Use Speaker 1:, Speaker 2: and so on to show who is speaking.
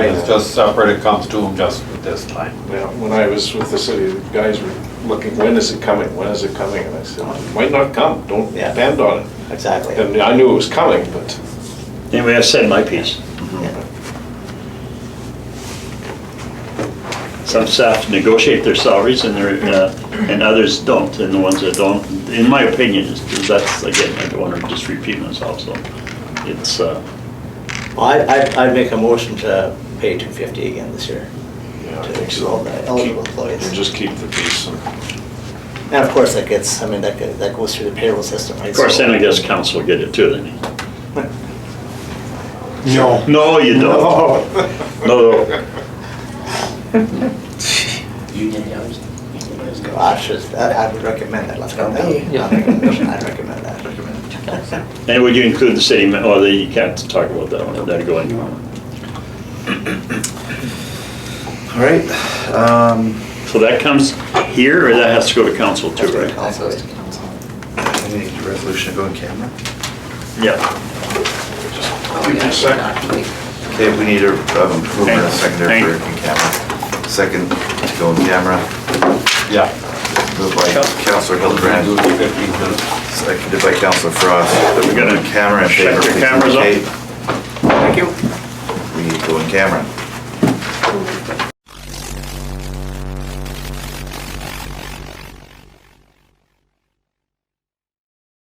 Speaker 1: It's just separate, it comes to them just this time.
Speaker 2: Now, when I was with the city, the guys were looking, when is it coming, when is it coming? And I said, it might not come, don't
Speaker 3: Yeah.
Speaker 2: depend on it.
Speaker 3: Exactly.
Speaker 2: And I knew it was coming, but
Speaker 4: Anyway, I said my piece.
Speaker 3: Yeah.
Speaker 4: Some staff negotiate their salaries and their, uh, and others don't, and the ones that don't, in my opinion, is- that's, again, I don't want to just repeat myself, so it's, uh,
Speaker 3: Well, I, I'd, I'd make a motion to pay two fifty again this year.
Speaker 2: Yeah, I
Speaker 3: to
Speaker 2: think so.
Speaker 3: all the Eligible
Speaker 2: Keep-
Speaker 3: employees.
Speaker 2: and just keep the peace. and-
Speaker 3: And of course, that gets, I mean, that, go- that goes through the payroll system, right?
Speaker 4: of course,
Speaker 3: So-
Speaker 4: then I guess council will get it too, then.
Speaker 5: No.
Speaker 4: No, you don't. No,
Speaker 6: Union hours. Union hours go.
Speaker 3: I should, I I would recommend that, let's go.
Speaker 6: Okay, yeah.
Speaker 3: I'd recommend I'd recommend that.
Speaker 4: and would you include the city, ma- oh, you can't talk about that one, that'd go in.
Speaker 6: All right. Um,
Speaker 4: So that comes here, or that has to go to council too, right?
Speaker 3: Also,
Speaker 6: we need a resolution to go in camera.
Speaker 4: Yeah.
Speaker 2: Keep the sec-
Speaker 6: Okay, we need a um, mover and a secondary for
Speaker 4: Thank-
Speaker 6: in camera. Second to go in camera.
Speaker 1: Yeah.
Speaker 6: Moved by Counselor
Speaker 1: Do
Speaker 6: Hildebrand,
Speaker 1: it in fifteen minutes.
Speaker 6: seconded by Counselor Frost. That we go in camera in favor.
Speaker 4: Shut your cameras off.
Speaker 6: Thank you. We need to go in camera.